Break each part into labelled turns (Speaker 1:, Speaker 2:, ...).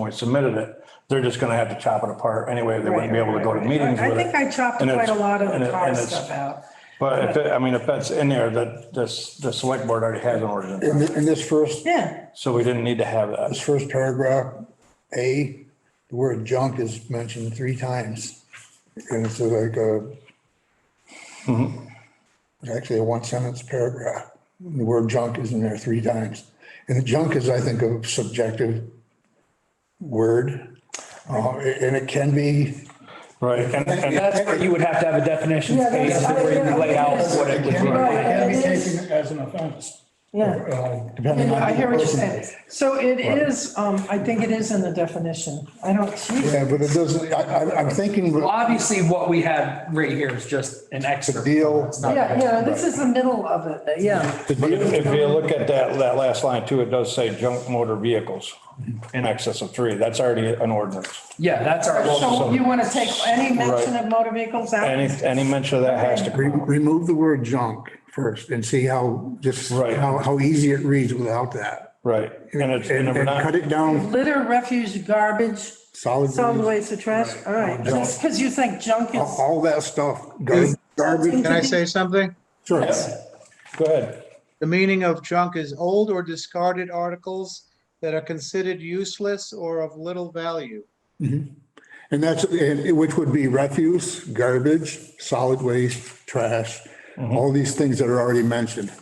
Speaker 1: when we submitted it, they're just gonna have to chop it apart anyway. They wouldn't be able to go to
Speaker 2: Right, right,
Speaker 1: meetings
Speaker 2: right.
Speaker 1: with
Speaker 2: I
Speaker 1: it.
Speaker 2: think I chopped
Speaker 1: And
Speaker 2: quite a
Speaker 1: it's-
Speaker 2: lot of
Speaker 1: and it-
Speaker 2: the car
Speaker 1: and it's-
Speaker 2: stuff out.
Speaker 1: But if, it- I mean, if that's in there, that, this, the select board already has an ordinance,
Speaker 3: In, th- in this first,
Speaker 2: Yeah,
Speaker 1: so we didn't need to have that.
Speaker 3: this first paragraph, A, the word junk is mentioned three times. And it's like a, actually a one sentence paragraph. The word junk is in there three times. And junk is, I think, a subjective word. Uh, and it can be,
Speaker 1: Right, and, and,
Speaker 4: That's where you would have to have a definition
Speaker 2: Yeah,
Speaker 4: page
Speaker 2: that's-
Speaker 4: to where you lay out what it would be.
Speaker 2: Right,
Speaker 5: Can be
Speaker 2: it is.
Speaker 5: taken as an offense.
Speaker 2: yeah.
Speaker 5: Uh,
Speaker 3: depending on.
Speaker 2: I hear what
Speaker 3: the
Speaker 2: you're
Speaker 3: person.
Speaker 2: saying. So it is, um, I think it is in the definition. I don't,
Speaker 3: Yeah, but it doesn't, I, I, I'm thinking,
Speaker 4: Well,
Speaker 3: but
Speaker 4: Obviously, what we have right here is just an excerpt.
Speaker 3: Deal.
Speaker 4: It's not-
Speaker 2: yeah, yeah, this is the middle of it, yeah.
Speaker 1: but if if you look at that, that last line too, it does say junk motor vehicles in excess of three. That's already an ordinance.
Speaker 4: Yeah, that's our, well,
Speaker 2: So you want to take any mention
Speaker 1: Right.
Speaker 2: of motor vehicles out?
Speaker 1: Any, any mention of that has to,
Speaker 3: re-
Speaker 1: go.
Speaker 3: remove the word junk first and see how, just
Speaker 1: Right.
Speaker 3: how, how easy it reads without that.
Speaker 1: right, and it's, and
Speaker 3: And
Speaker 1: if we're
Speaker 3: and cut
Speaker 1: not,
Speaker 3: it down
Speaker 2: Litter, refuse, garbage,
Speaker 3: solid.
Speaker 2: solid
Speaker 3: waste,
Speaker 2: waste of trash, all right. Just because you think junk
Speaker 3: All
Speaker 1: Oh,
Speaker 2: is,
Speaker 3: all that stuff, gar- garbage.
Speaker 6: Can I say something?
Speaker 3: Sure.
Speaker 1: go ahead.
Speaker 6: The meaning of junk is old or discarded articles that are considered useless or of little value.
Speaker 3: And that's, and which would be refuse, garbage, solid waste, trash, all these things that are already mentioned.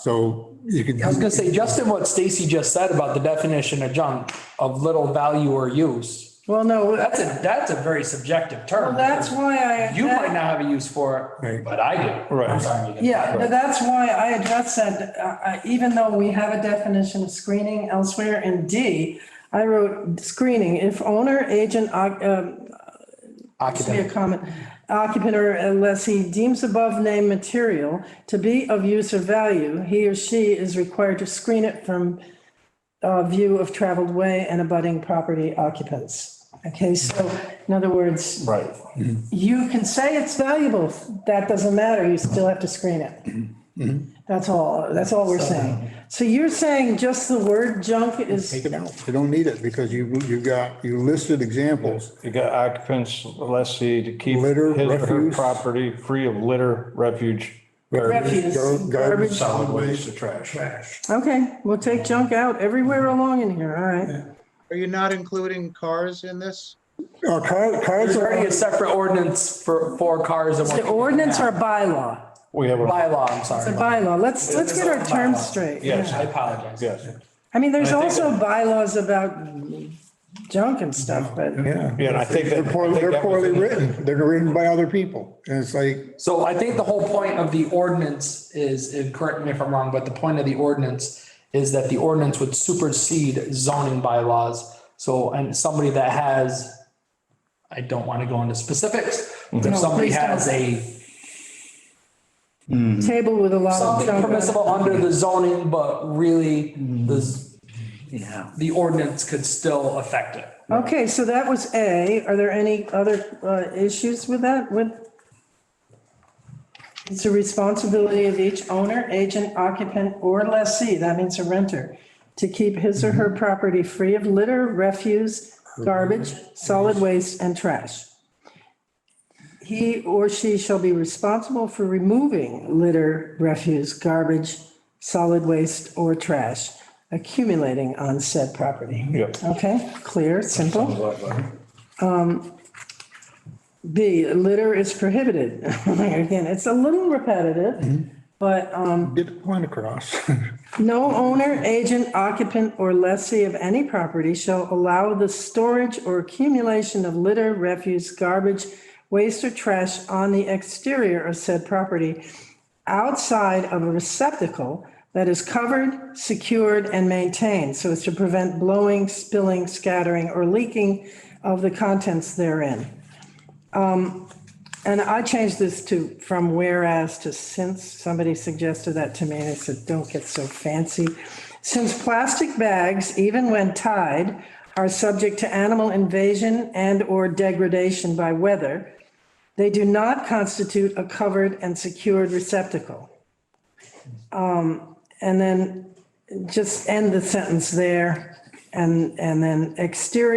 Speaker 3: So you could.
Speaker 4: I was gonna say, just in what Stacy just said about the definition of junk of little value or use,
Speaker 2: well, no, uh,
Speaker 4: that's a, that's a very subjective
Speaker 1: oh.
Speaker 4: term.
Speaker 2: that's why I.
Speaker 4: You might not have a use for it,
Speaker 3: Right.
Speaker 4: but I do.
Speaker 1: Right.
Speaker 4: I'm sorry, you didn't.
Speaker 2: Yeah, but that's why I addressed that, uh, uh, even though we have a definition of screening elsewhere in D, I wrote screening, if owner, agent, oc- um,
Speaker 4: Occupant.
Speaker 2: be a comment, occupant or unless he deems above named material to be of use or value, he or she is required to screen it from uh, view of traveled way and abutting property occupants. Okay, so in other words,
Speaker 1: Right.
Speaker 2: you can say it's valuable, that doesn't matter, you still have to screen it.
Speaker 3: Mm-hmm.
Speaker 2: That's all, that's all we're saying. So you're saying just the word junk is,
Speaker 3: Take it out. You don't need it because you, you got, you listed examples.
Speaker 1: You got occupants, lessee to keep his
Speaker 3: Litter,
Speaker 1: or her
Speaker 3: refuse.
Speaker 1: property free of litter, refuge.
Speaker 2: Refuse,
Speaker 3: Gar-
Speaker 2: garbage.
Speaker 3: Garbage, solid waste, or trash.
Speaker 2: okay, we'll take junk out everywhere along in here, all right?
Speaker 6: Are you not including cars in this?
Speaker 3: Uh, car- Cars
Speaker 4: There's already
Speaker 3: are,
Speaker 4: a separate ordinance for, for cars and.
Speaker 2: The ordinance or bylaw?
Speaker 1: We have a,
Speaker 4: Bylaw, I'm sorry.
Speaker 2: The bylaw, let's, let's get our terms straight.
Speaker 1: Yes.
Speaker 4: I apologize.
Speaker 1: yes,
Speaker 2: I mean, there's
Speaker 1: I think-
Speaker 2: also bylaws about junk and stuff, but
Speaker 3: yeah.
Speaker 1: yeah, and I think that.
Speaker 3: They're poorly,
Speaker 1: I think
Speaker 3: they're
Speaker 1: that was
Speaker 3: poorly
Speaker 1: in-
Speaker 3: written. They're written by other people. And it's like,
Speaker 4: So I think the whole point of the ordinance is, and correct me if I'm wrong, but the point of the ordinance is that the ordinance would supersede zoning bylaws. So, and somebody that has, I don't want to go into specifics, but if
Speaker 2: No,
Speaker 4: somebody
Speaker 2: please don't.
Speaker 4: has a,
Speaker 3: Mm-hmm.
Speaker 2: table with a lot of
Speaker 4: something
Speaker 2: junk. on it.
Speaker 4: permissible under the zoning, but really the, z-
Speaker 2: Mm-hmm.
Speaker 4: the ordinance could still affect it.
Speaker 2: Okay, so that was A. Are there any other uh, issues with that? With it's a responsibility of each owner, agent, occupant, or lessee, that means a renter, to keep his or her property free of litter, refuse, garbage, solid waste, and trash. He or she shall be responsible for removing litter, refuse, garbage, solid waste, or trash accumulating on said property.
Speaker 1: Yep.
Speaker 2: Okay, clear, simple. Um, B, litter is prohibited. Again, it's a little repetitive, but um,
Speaker 3: get the point across.
Speaker 2: no owner, agent, occupant, or lessee of any property shall allow the storage or accumulation of litter, refuse, garbage, waste, or trash on the exterior of said property outside of a receptacle that is covered, secured, and maintained so as to prevent blowing, spilling, scattering, or leaking of the contents therein. Um, And I changed this to from whereas to since. Somebody suggested that to me and I said, don't get so fancy. Since plastic bags, even when tied, are subject to animal invasion and/or degradation by weather, they do not constitute a covered and secured receptacle. Um, And then just end the sentence there. And, and then exterior